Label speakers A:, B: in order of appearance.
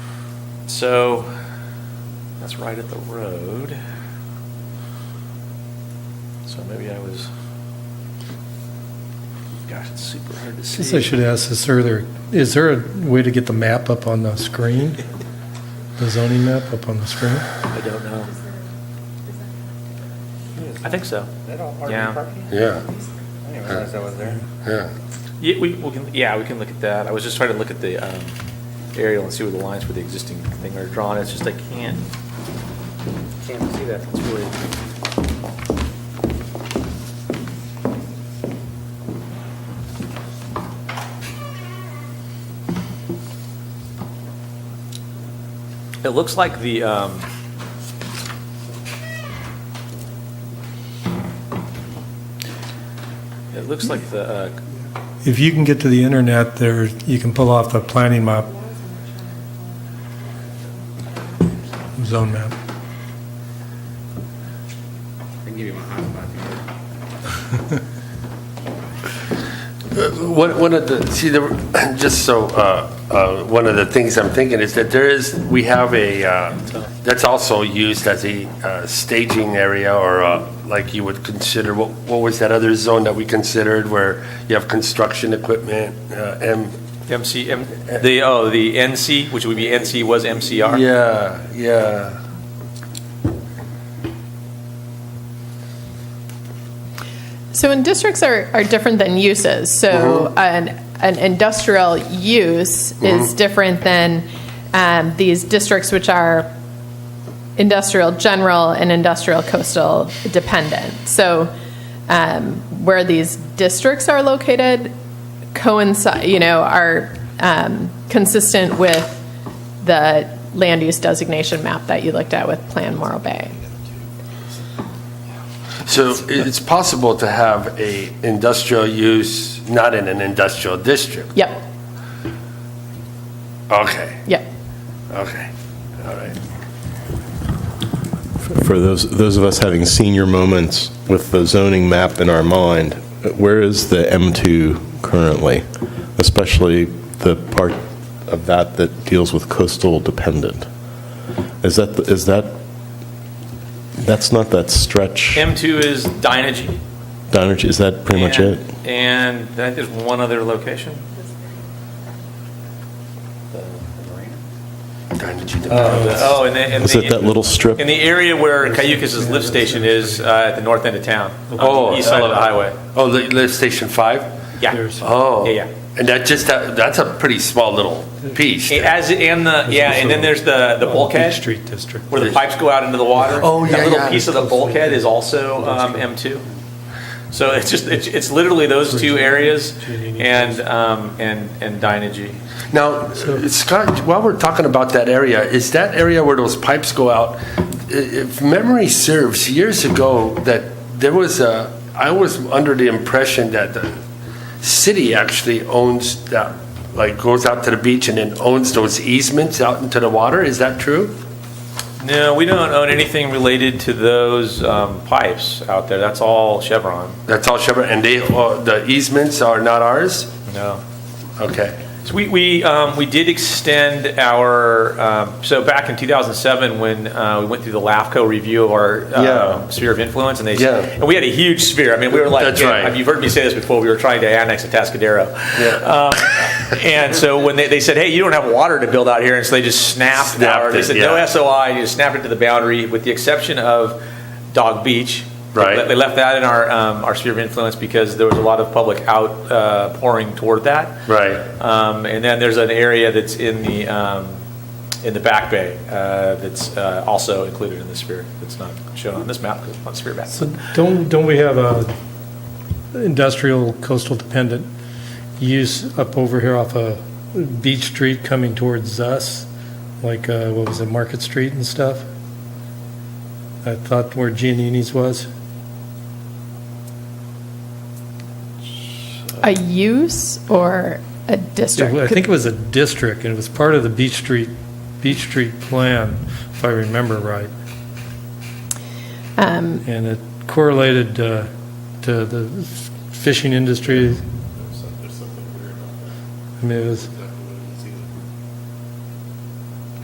A: So, that's right at the road. So maybe I was, gosh, it's super hard to see.
B: Since I should ask this earlier, is there a way to get the map up on the screen? The zoning map up on the screen?
A: I don't know. I think so.
C: That all
A: Yeah.
C: RV parking?
D: Yeah,
C: I didn't realize that was there.
D: yeah.
A: Yeah, we, we can, yeah, we can look at that. I was just trying to look at the um, aerial and see where the lines for the existing thing are drawn. It's just I can't,
C: Can't see that.
A: it's really, it looks like the, um, it looks like the, uh,
B: If you can get to the internet, there, you can pull off the planning map, zone map.
E: I can give you my hotspot.
D: Uh, One one of the, see, the just so, uh, uh, one of the things I'm thinking is that there is, we have a, uh, that's also used as a uh, staging area or uh, like you would consider, what what was that other zone that we considered where you have construction equipment? uh, and
A: MC, M- the, oh, the NC, which would be NC was MCR?
D: Yeah, yeah.
F: So, in districts are, are different than uses. So, an, an industrial use is different than um, these districts, which are industrial general and industrial coastal dependent. So, um, where these districts are located coincide, you know, are um, consistent with the land use designation map that you looked at with Plan Morro Bay.
D: So it's possible to have a industrial use, not in an industrial district?
F: Yep,
D: Okay,
F: yep.
D: okay, all right.
G: For those, those of us having senior moments with the zoning map in our mind, where is the M2 currently? Especially the part of that that deals with coastal dependent? Is that, is that, that's not that stretch?
A: M2 is Dynegy.
G: Dynegy, is that pretty much it?
A: And I think there's one other location. Oh, and then, and
G: Is it
A: the,
G: that little strip?
A: in the area where Cayucas' lift station is, uh, at the north end of town, on
D: Oh,
A: the east side of the
D: uh,
A: highway.
D: Oh, the lift station five?
A: Yeah.
D: Oh.
A: Yeah, yeah.
D: And that just, that- that's a pretty small little piece.
A: And As, and the, yeah, and then there's the, the bulkhead. Street District. Where the pipes go out into the water.
D: Oh, yeah,
A: That
D: yeah.
A: little piece of the bulkhead is also um, M2. So it's just, it's, it's literally those two areas and, um, and, and Dynegy.
D: Now, Scott, while we're talking about that area, is that area where those pipes go out, i- if memory serves, years ago, that there was a, I was under the impression that the city actually owns that, like goes out to the beach and then owns those easements out into the water. Is that true?
A: No, we don't own anything related to those um, pipes out there. That's all Chevron.
D: That's all Chevron, and they, uh, the easements are not ours?
A: No.
D: Okay.
A: So we, we, um, we did extend our, um, so back in 2007, when, uh, we went through the LAFCO review of our,
D: Yeah.
A: uh, sphere of influence, and they,
D: Yeah.
A: and we had a huge sphere. I mean, we were like,
D: That's
A: yeah,
D: right.
A: You've heard me say this before, we were trying to annex a Tascadero.
D: Yeah.
A: Um, And so when they, they said, hey, you don't have water to build out here, and so they just snapped
D: Snapped
A: our, they
D: it,
A: said, no
D: yeah.
A: SOI, and you snapped it to the boundary, with the exception of Dog Beach. They
D: Right.
A: le- They left that in our, um, our sphere of influence because there was a lot of public outpouring toward that.
D: Right.
A: Um, and then there's an area that's in the, um, in the back bay, uh, that's, uh, also included in the sphere. That's not shown on this map because it's not sphere map.
B: So don't, don't we have a industrial coastal dependent use up over here off a beach street coming towards us? Like, uh, what was it, Market Street and stuff? I thought where Giannini's was.
F: A use or a district?
B: I think it was a district, and it was part of the Beach Street, Beach Street plan, if I remember right.
F: Um,
B: And it correlated uh, to the fishing industry. I mean, it was,